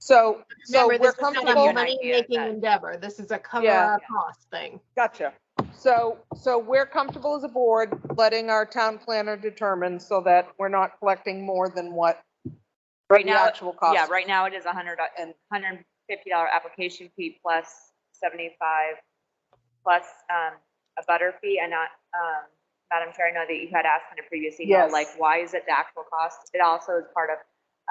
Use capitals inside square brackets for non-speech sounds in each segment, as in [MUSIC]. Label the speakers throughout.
Speaker 1: So, so
Speaker 2: Remember,
Speaker 1: we're
Speaker 2: this is not
Speaker 1: comfortable,
Speaker 2: a
Speaker 3: Good
Speaker 2: money-making
Speaker 3: idea.
Speaker 2: endeavor. This is a cover
Speaker 1: Yeah.
Speaker 2: our cost thing.
Speaker 1: gotcha. So, so we're comfortable as a board letting our town planner determine so that we're not collecting more than what
Speaker 3: Right
Speaker 1: the
Speaker 3: now,
Speaker 1: actual cost.
Speaker 3: Yeah, right now it is a hundred do- and hundred and fifty dollar application fee plus seventy-five, plus, um, a butter fee and not, um, Madam Chair, I know that you had asked in a previous email,
Speaker 1: Yes.
Speaker 3: like, why is it the actual cost? It also is part of,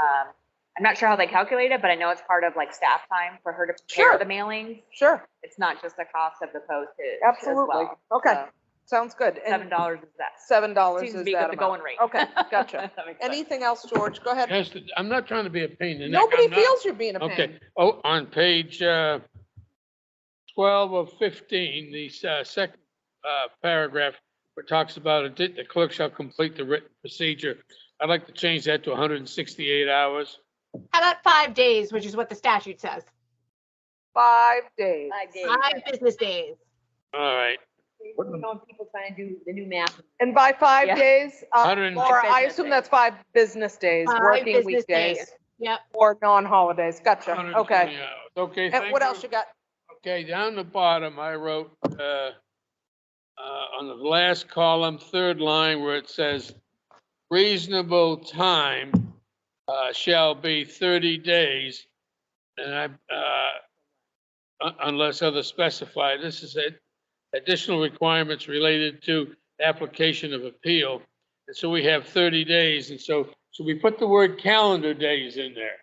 Speaker 3: um, I'm not sure how they calculate it, but I know it's part of like staff time for her to
Speaker 1: Sure.
Speaker 3: prepare the mailings.
Speaker 1: Sure,
Speaker 3: It's not just the cost of the postage as
Speaker 1: absolutely.
Speaker 3: well.
Speaker 1: Okay,
Speaker 3: So,
Speaker 1: sounds good.
Speaker 3: Seven
Speaker 1: And
Speaker 3: dollars is that.
Speaker 1: seven dollars
Speaker 3: Seems to
Speaker 1: is
Speaker 3: be
Speaker 1: that
Speaker 3: with the
Speaker 1: amount.
Speaker 3: going rate. [LAUGHS]
Speaker 1: Okay, gotcha.
Speaker 3: If that makes sense.
Speaker 1: Anything else, George? Go ahead.
Speaker 4: Yes, I'm not trying to be a pain in the neck.
Speaker 1: Nobody
Speaker 4: I'm not-
Speaker 1: feels you're being a
Speaker 4: Okay,
Speaker 1: pain.
Speaker 4: oh, on page uh, 12 or 15, the s- uh, second uh, paragraph, where it talks about it, the clerk shall complete the written procedure. I'd like to change that to 168 hours.
Speaker 2: How about five days, which is what the statute says?
Speaker 1: Five days.
Speaker 5: Five days.
Speaker 2: Five business days.
Speaker 4: All right,
Speaker 5: You know, people trying to do the new math.
Speaker 1: And by
Speaker 3: Yeah.
Speaker 1: five days, uh,
Speaker 4: Hundred and-
Speaker 1: Laura, I
Speaker 3: Business
Speaker 1: assume
Speaker 3: days.
Speaker 1: that's five business days,
Speaker 2: Five
Speaker 1: working
Speaker 2: business
Speaker 1: weekdays
Speaker 2: Yep.
Speaker 1: or non-holidays. Gotcha.
Speaker 4: 120
Speaker 1: Okay.
Speaker 4: hours. Okay,
Speaker 1: And what else
Speaker 4: thank
Speaker 1: you
Speaker 4: you.
Speaker 1: got?
Speaker 4: Okay, down the bottom, I wrote, uh, uh, on the last column, third line, where it says reasonable time uh, shall be 30 days. And I, uh, un- unless other specified, this is it. Additional requirements related to application of appeal. And so we have 30 days. And so, so we put the word calendar days in there.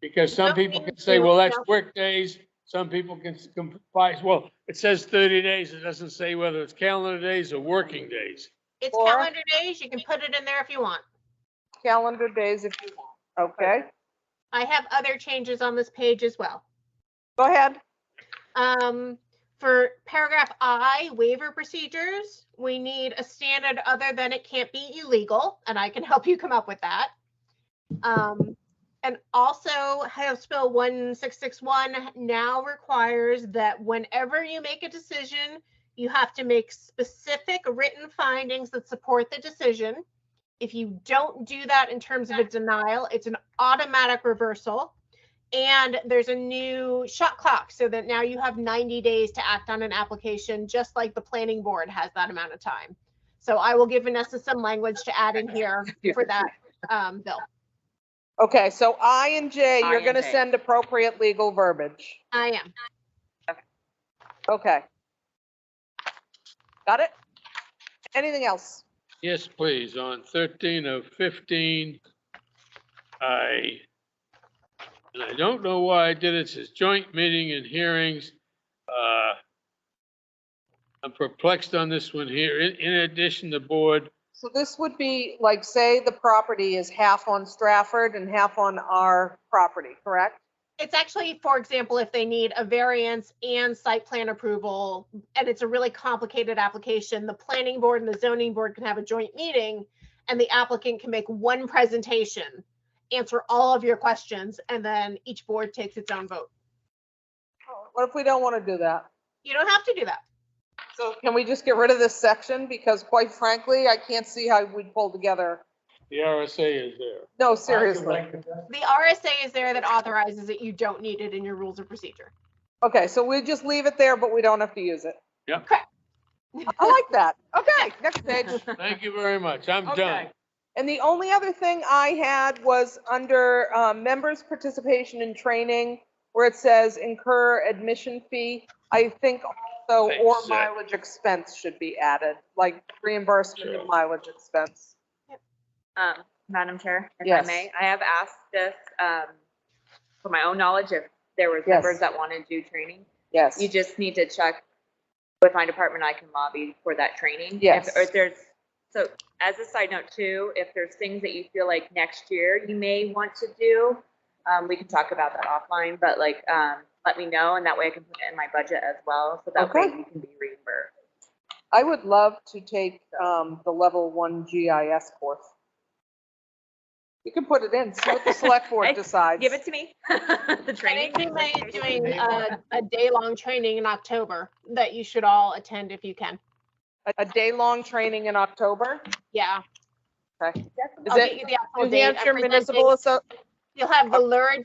Speaker 4: Because some
Speaker 2: Don't
Speaker 4: people
Speaker 2: we
Speaker 4: can say, well, that's
Speaker 2: do-
Speaker 4: work days. Some people can s- comply. Well, it says 30 days. It doesn't say whether it's calendar days or working days.
Speaker 2: It's
Speaker 1: Laura?
Speaker 2: calendar days. You can put it in there if you want.
Speaker 1: Calendar days if you want. Okay,
Speaker 2: I have other changes on this page as well.
Speaker 1: go ahead.
Speaker 2: Um, for paragraph I, waiver procedures, we need a standard other than it can't be illegal, and I can [LAUGHS] help you come up with that. Um, and also House Bill one six six one now requires that whenever you make a decision, you have to make specific written findings that support the decision. If you don't do that in terms of a denial, it's an automatic reversal. And there's a new shot clock so that now you have 90 days to act on an application, just like the planning board has that amount of time. So I will give Vanessa some language to add in here for that um, bill.
Speaker 1: Okay, so I and J,
Speaker 3: I
Speaker 1: you're
Speaker 3: and
Speaker 1: gonna
Speaker 3: J.
Speaker 1: send appropriate legal verbiage.
Speaker 2: I am.
Speaker 1: Okay. Got it? Anything else?
Speaker 4: Yes, please, on thirteen of fifteen, I, and I don't know why I did it, it says joint meeting and hearings. Uh I'm perplexed on this one here. In, in addition, the board,
Speaker 1: So this would be like, say the property is half on Stratford and half on our property, correct?
Speaker 2: It's actually, for example, if they need a variance and site plan approval, and it's a really complicated application, the planning board and the zoning board can have a joint meeting, and the applicant can make one presentation, answer all of your questions, and then each board takes its own vote.
Speaker 1: What if we don't want to do that?
Speaker 2: You don't have to do that.
Speaker 1: So can we just get rid of this section? Because quite frankly, I can't see how we'd pull together.
Speaker 4: the RSA is there.
Speaker 1: No, seriously.
Speaker 2: The RSA is there that authorizes it. You don't need it in your rules of procedure.
Speaker 1: Okay, so we just leave it there, but we don't have to use it.
Speaker 4: Yep.
Speaker 2: Correct.
Speaker 1: I like
Speaker 3: [LAUGHS]
Speaker 1: that. Okay, next page.
Speaker 4: Thank you very much, I'm done.
Speaker 1: Okay. And the only other thing I had was under um, members' participation in training, where it says incur admission fee. I think also or
Speaker 4: Thanks, Zach.
Speaker 1: mileage expense should be added, like reimbursement
Speaker 4: Sure.
Speaker 1: of mileage expense.
Speaker 3: Um, Madam Chair, if
Speaker 1: Yes.
Speaker 3: I may, I have asked this, um, for my own knowledge, if there was
Speaker 1: Yes.
Speaker 3: members that want to do training.
Speaker 1: Yes.
Speaker 3: You just need to check with my department, I can lobby for that training. If-
Speaker 1: Yes.
Speaker 3: Or if there's, so as a side note too, if there's things that you feel like next year you may want to do, um, we can talk about that offline, but like, um, let me know and that way I can put it in my budget as well. So that way
Speaker 1: Okay.
Speaker 3: you can be reimbursed.
Speaker 1: I would love to take um, the level one GIS course. You can put it in, see what the select board
Speaker 3: [LAUGHS] Hey,
Speaker 1: decides.
Speaker 3: Give it to me, [LAUGHS] the training.
Speaker 2: Planning Committee is doing a, a day-long training in October that you should all attend if you can.
Speaker 1: A- A day-long training in October.
Speaker 2: Yeah.
Speaker 1: Okay. Is
Speaker 2: I'll get
Speaker 1: it
Speaker 2: you the actual
Speaker 1: New
Speaker 2: date. I'm
Speaker 1: Hampshire
Speaker 2: presenting-
Speaker 1: Municipal Asso-
Speaker 2: You'll have the lurid